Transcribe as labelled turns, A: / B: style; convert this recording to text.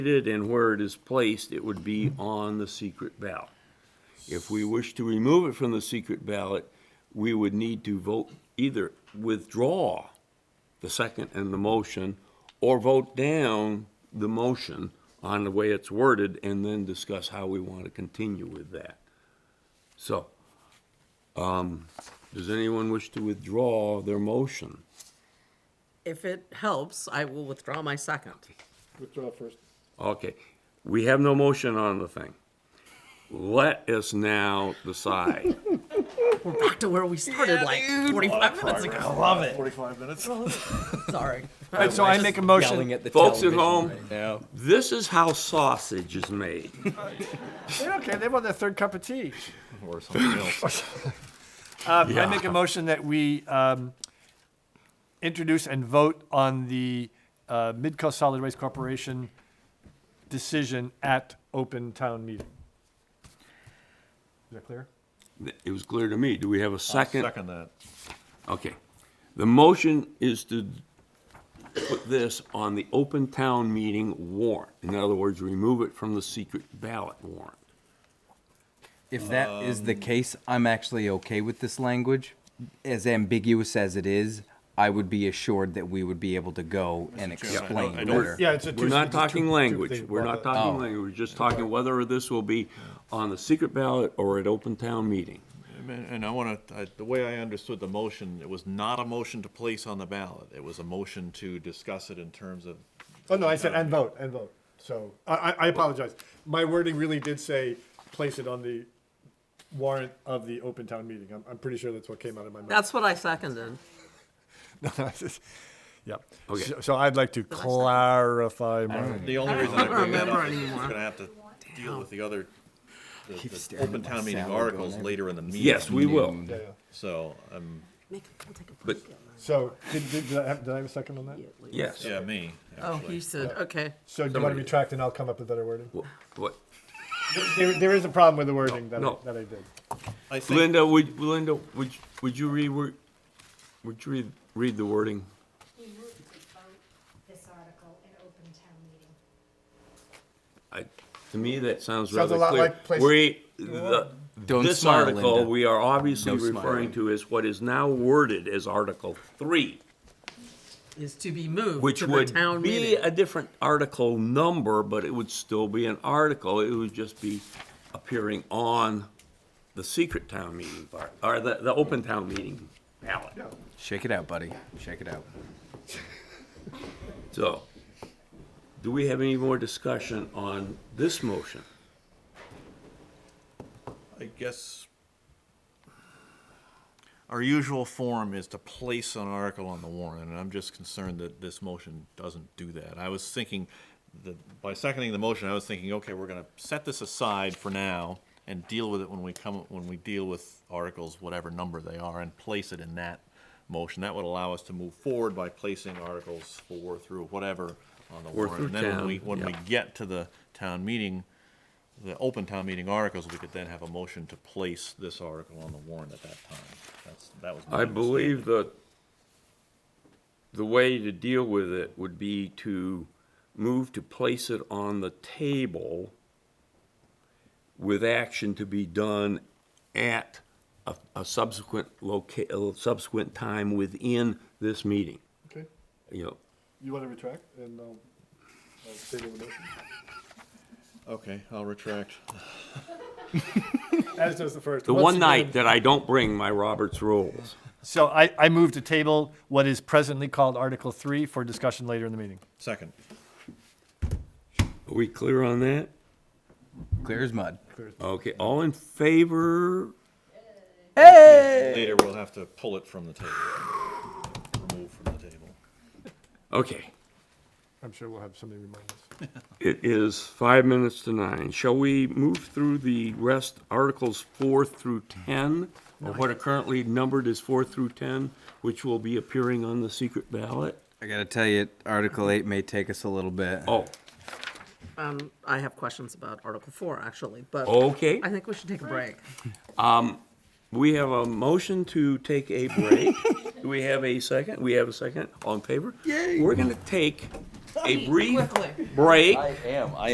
A: it and where it is placed, it would be on the secret ballot. If we wish to remove it from the secret ballot, we would need to vote, either withdraw the second and the motion, or vote down the motion on the way it's worded, and then discuss how we want to continue with that. So, um, does anyone wish to withdraw their motion?
B: If it helps, I will withdraw my second.
C: Withdraw first.
A: Okay, we have no motion on the thing. Let us now decide.
B: We're back to where we started like 45 minutes ago.
D: Oh, I love it.
C: Forty-five minutes.
B: Sorry.
D: so I make a motion.
A: Folks at home, this is how sausage is made.
D: They're okay. They want their third cup of tea.
E: or something else.
D: Um, I make a motion that we um, introduce and vote on the uh, Midcoast Solid Waste Corporation decision at open town meeting. Is that clear?
A: It was clear to me. Do we have a second?
E: Second that.
A: Okay. The motion is to put this on the open town meeting warrant. In other words, remove it from the secret ballot warrant.
F: If that is the
A: Um,
F: case, I'm actually okay with this language. As ambiguous as it is, I would be assured that we would be able to go and explain better.
C: Yeah, it's a.
A: We're not talking language. We're not talking
F: Oh.
A: language. We're just talking whether this will be on the secret ballot or at open town meeting.
E: I mean, And I want to, the way I understood the motion, it was not a motion to place on the ballot. It was a motion to discuss it in terms of,
C: Oh, no, I said and vote, and vote. So I, I I apologize. My wording really did say, place it on the warrant of the open town meeting. I'm, I'm pretty sure that's what came out of my mouth.
B: That's what I seconded.
C: Yep.
A: Okay.
C: So- So I'd like to clarify my.
E: the only reason I
B: don't
E: bring that
B: remember
E: up is we're
B: anymore.
E: going to have to deal with the other, the-
F: Keep
E: the
F: staring
E: open
F: at
E: town
F: my
E: meeting
F: salad going
E: articles
F: in.
E: later in the meeting.
A: Yes, we will.
C: Yeah, yeah.
E: So, um,
B: Make him come take a
A: But,
B: break.
C: So did, did, did I have, did I have a second on that?
A: yes.
E: yeah, me,
B: Oh, he
E: actually.
B: said, okay.
C: So do you want to retract and I'll come up with better wording?
A: Wha- What?
C: There, there is a problem with the wording that, I-
A: No.
C: that I did.
E: I think,
A: Linda, would, Linda, would, would you read, wor- would you read, read the wording?
G: We move to vote this article in open town meeting.
A: I, to me, that sounds
C: Sounds
A: rather
C: a lot
A: clear.
C: like place-
A: We, the,
F: Don't
A: this
F: smile,
A: article,
F: Linda.
A: we are obviously
F: No smiling.
A: referring to as what is now worded as Article Three,
B: Is to be moved
A: which
B: to the
A: would
B: town
A: be
B: meeting.
A: a different article number, but it would still be an article. It would just be appearing on the secret town meeting part, or the, the open town meeting ballot.
F: Shake it out, buddy. Shake it out.
A: So, do we have any more discussion on this motion?
E: I guess, our usual form is to place an article on the warrant, and I'm just concerned that this motion doesn't do that. I was thinking, that by seconding the motion, I was thinking, okay, we're gonna set this aside for now and deal with it when we come, when we deal with articles, whatever number they are, and place it in that motion. That would allow us to move forward by placing articles four through whatever on the
A: Or
E: warrant.
A: through
E: And then when we,
A: town,
E: when we
A: yeah.
E: get to the town meeting, the open town meeting articles, we could then have a motion to place this article on the warrant at that time. That's, that was. my
A: I believe that the way to deal with it would be to move to place it on the table with action to be done at a, a subsequent loca, a subsequent time within this meeting,
C: Okay.
A: you know.
C: You want to retract and I'll, I'll table the motion?
E: understanding. Okay, I'll retract.
C: As does the first.
A: The
C: Once
A: one
C: you-
A: night that I don't bring my Roberts rules.
D: So I, I move to table what is presently called Article Three for discussion later in the meeting.
E: Second.
A: Are we clear on that?
F: Clear as mud.
A: Okay, all in favor?
E: Later, we'll have to pull it from the table. Remove from the table.
A: Okay.
C: I'm sure we'll have somebody remind us.
A: It is five minutes to nine. Shall we move through the rest, Articles 4 through 10? Or what are currently numbered is 4 through 10, which will be appearing on the secret ballot?
F: I gotta tell you, Article Eight may take us a little bit.
A: Oh,
B: Um, I have questions about Article 4, actually, but
A: okay.
B: I think we should take a break.
A: We have a motion to take a break. Do we have a second? We have a second. All in favor? Yay. We're going to take
B: a brief break.
A: I am. I